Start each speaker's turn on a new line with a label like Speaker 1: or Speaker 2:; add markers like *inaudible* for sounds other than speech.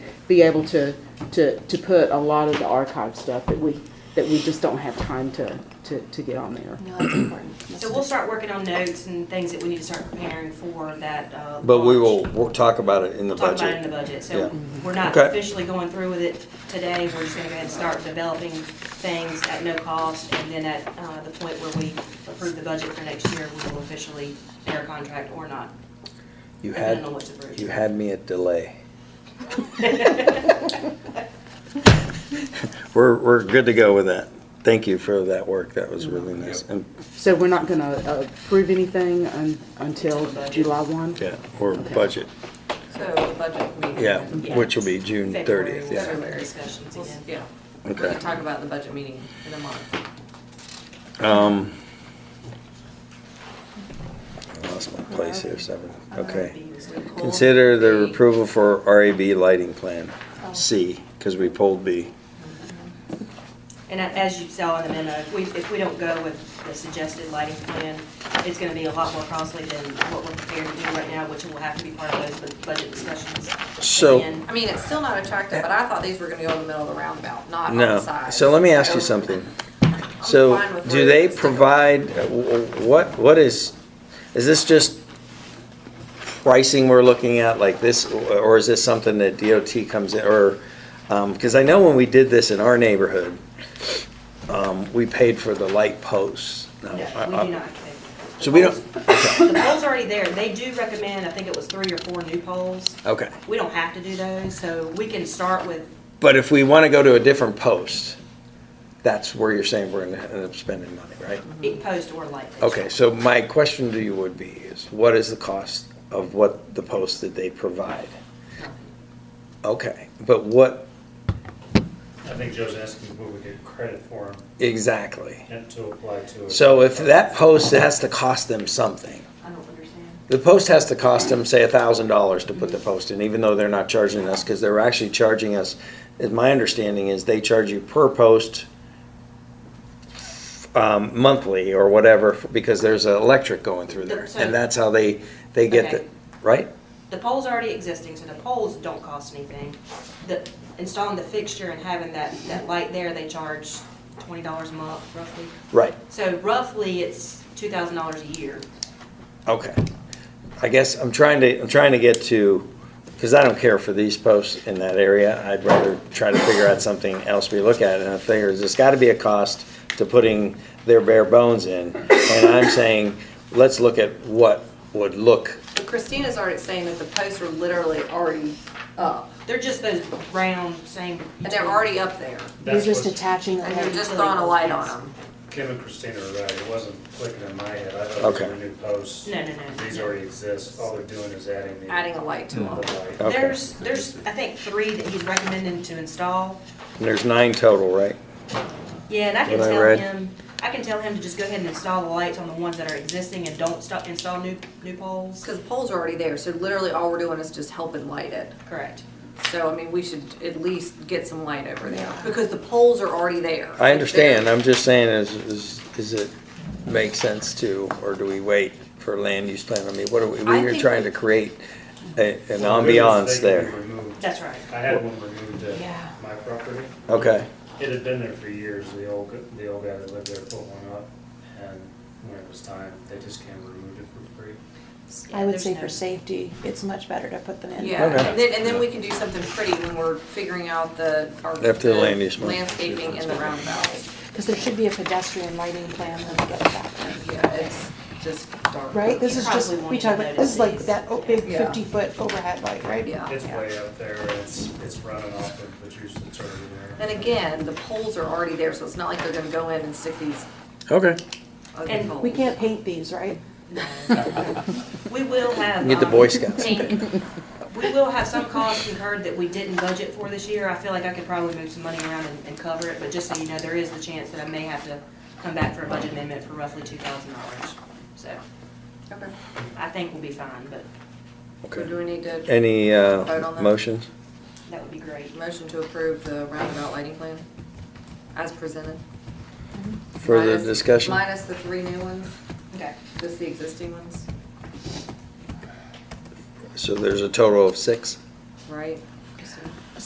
Speaker 1: be able to, to, to put a lot of the archive stuff that we, that we just don't have time to, to, to get on there.
Speaker 2: No, that's important.
Speaker 3: So we'll start working on notes and things that we need to start preparing for that, uh.
Speaker 4: But we will,
Speaker 3: launch.
Speaker 4: we'll talk about it in the
Speaker 3: We'll talk about it in the
Speaker 4: budget.
Speaker 3: budget, so
Speaker 4: Yeah.
Speaker 3: we're not
Speaker 4: Okay.
Speaker 3: officially going through with it today, we're just gonna go ahead and start developing things at no cost, and then at, uh, the point where we approve the budget for next year, we will officially enter contract or not.
Speaker 4: You
Speaker 3: depending
Speaker 4: had,
Speaker 3: on what's approved.
Speaker 4: you had me
Speaker 3: *laughs*
Speaker 4: at delay. We're, we're good to go with that. Thank you for that work. That was really nice. And,
Speaker 1: So we're not gonna uh, approve anything un- until July one?
Speaker 4: yeah, or budget,
Speaker 2: So the budget meeting.
Speaker 4: yeah,
Speaker 3: Yeah.
Speaker 4: which will be June
Speaker 3: February,
Speaker 4: thirtieth,
Speaker 3: we'll
Speaker 4: yeah.
Speaker 3: start with Discussions
Speaker 2: We'll-
Speaker 3: again.
Speaker 2: Yeah. We
Speaker 4: Okay.
Speaker 2: can talk about the budget meeting in a month.
Speaker 4: Um, I lost my place here, seven, okay. Consider the approval for RAB lighting plan, C, because we pulled B.
Speaker 3: And a- as you saw in the memo, if we, if we don't go with the suggested lighting plan, it's gonna be a lot more costly than what we're prepared to do right now, which will have to be part of those bu- budget discussions.
Speaker 4: So-
Speaker 3: again.
Speaker 2: I mean, it's still not attractive, but I thought these were gonna go in the middle of the roundabout, not on the
Speaker 4: No,
Speaker 2: side.
Speaker 4: so let me ask you something. So,
Speaker 2: fine with
Speaker 4: do
Speaker 2: where
Speaker 4: they
Speaker 2: it's different.
Speaker 4: provide, w- w- what, what is, is this just pricing we're looking at like this, or is this something that DOT comes in, or, um 'cause cause I know when we did this in our neighborhood, um, we paid for the light posts. Now,
Speaker 3: No, we do
Speaker 4: I-
Speaker 3: not.
Speaker 4: I-
Speaker 3: have to.
Speaker 4: So we don't-
Speaker 3: The pole's already there. They do recommend, I think it was three or four new poles.
Speaker 4: Okay,
Speaker 3: We don't have to do those, so we can start with,
Speaker 4: but if we wanna go to a different post, that's where you're saying we're gonna end up spending money, right?
Speaker 3: it post or light. fixture.
Speaker 4: Okay, so my question to you would be is, what is the cost of what the post that they provide? Okay, but what
Speaker 5: I think Joe's asking what we get credit for
Speaker 4: exactly?
Speaker 5: and to apply to it.
Speaker 4: So if that post has to cost them something,
Speaker 3: I don't understand.
Speaker 4: the post has to cost them, say, a thousand dollars to put the post in, even though they're not charging us, because they're actually charging us, is my understanding is they charge you per post um, monthly or whatever, because there's an electric going through there, and that's how they, they get the,
Speaker 3: Okay.
Speaker 4: right?
Speaker 3: The pole's already existing, so the poles don't cost anything. The, installing the fixture and having that, that light there, they charge twenty dollars a month roughly.
Speaker 4: Right.
Speaker 3: So roughly, it's two thousand dollars a year.
Speaker 4: Okay. I guess I'm trying to, I'm trying to get to, because I don't care for these posts in that area. I'd rather try to figure out something else we look at. And I figure there's got to be a cost to putting their bare bones in. And I'm saying, let's look at what would look,
Speaker 2: But Christina's already saying that the posts are literally already up,
Speaker 3: They're just those round, same.
Speaker 2: and they're already up there,
Speaker 5: That's what
Speaker 1: attaching
Speaker 2: and you're just throwing a light on them.
Speaker 5: Kim and Christina are right, it wasn't clicking in my head, I thought these
Speaker 4: Okay.
Speaker 5: were new posts.
Speaker 3: No, no, no.
Speaker 5: These already exist, all they're doing is adding the.
Speaker 2: adding a light to
Speaker 5: the
Speaker 4: Mm.
Speaker 2: them.
Speaker 5: light.
Speaker 4: Okay.
Speaker 3: There's, there's, I think, three that he's recommending to install.
Speaker 4: and there's nine total, right?
Speaker 3: Yeah, and I can
Speaker 4: What I
Speaker 3: tell
Speaker 4: read.
Speaker 3: him, I can tell him to just go ahead and install the lights on the ones that are existing and don't stop, install new, new poles.
Speaker 2: Because the poles are already there, so literally all we're doing is just helping light it.
Speaker 3: Correct.
Speaker 2: So, I mean, we should at least get some light over there, because the poles are already there.
Speaker 4: I understand. I'm just saying, is, is, is it make sense to, or do we wait for land use plan? I mean, what are we,
Speaker 2: I
Speaker 4: we're
Speaker 2: think
Speaker 4: trying
Speaker 2: we-
Speaker 4: to create a- an
Speaker 5: Well, the reason is
Speaker 4: ambiance
Speaker 5: they can be
Speaker 4: there.
Speaker 5: removed.
Speaker 3: That's right.
Speaker 5: I had one removed
Speaker 3: Yeah.
Speaker 5: at my property.
Speaker 4: Okay.
Speaker 5: It had been there for years, the old, gu- the old guy that lived there put one up, and when it was time, they just came and removed it for free.
Speaker 6: I would say
Speaker 3: There's no-
Speaker 6: for safety, it's much better to put them in.
Speaker 2: Yeah,
Speaker 4: Okay.
Speaker 2: and then, and then we can do something pretty when we're figuring out the. our-
Speaker 4: After the land use plan.
Speaker 2: Landscaping and the roundabouts.
Speaker 6: Because there should be a pedestrian lighting plan when we get back there.
Speaker 2: Yeah, it's just dark.
Speaker 6: Right? This
Speaker 3: You
Speaker 6: is just,
Speaker 3: probably
Speaker 6: we
Speaker 3: won't
Speaker 6: talk about, this is like
Speaker 3: notice
Speaker 6: that o- big
Speaker 2: Yeah.
Speaker 6: fifty-foot overhead light, right?
Speaker 2: Yeah.
Speaker 3: Oh,
Speaker 5: It's way up there, it's, it's running off of the juice that's already there.
Speaker 2: And again, the poles are already there, so it's not like they're gonna go in and stick these
Speaker 4: Okay.
Speaker 2: ugly
Speaker 3: And
Speaker 2: poles.
Speaker 6: We can't paint these, right?
Speaker 3: We will have.
Speaker 4: Get the
Speaker 3: um,
Speaker 4: Boy Scouts.
Speaker 6: *laughs*
Speaker 3: pink. We will have some costs incurred that we didn't budget for this year. I feel like I could probably move some money around and, and cover it, but just so you know, there is the chance that I may have to come back for a budget amendment for roughly two thousand dollars. So
Speaker 2: Okay,
Speaker 3: I think we'll be fine, but
Speaker 2: so do we need to,
Speaker 4: Any
Speaker 2: Vote on
Speaker 4: uh,
Speaker 2: that.
Speaker 4: motions?
Speaker 3: that would be great.
Speaker 2: motion to approve the roundabout lighting plan as presented?
Speaker 4: Further
Speaker 2: Minus-
Speaker 4: discussion?
Speaker 2: Minus the three new ones,
Speaker 3: Okay.
Speaker 2: just the existing ones,
Speaker 4: So there's a total of six?
Speaker 2: right?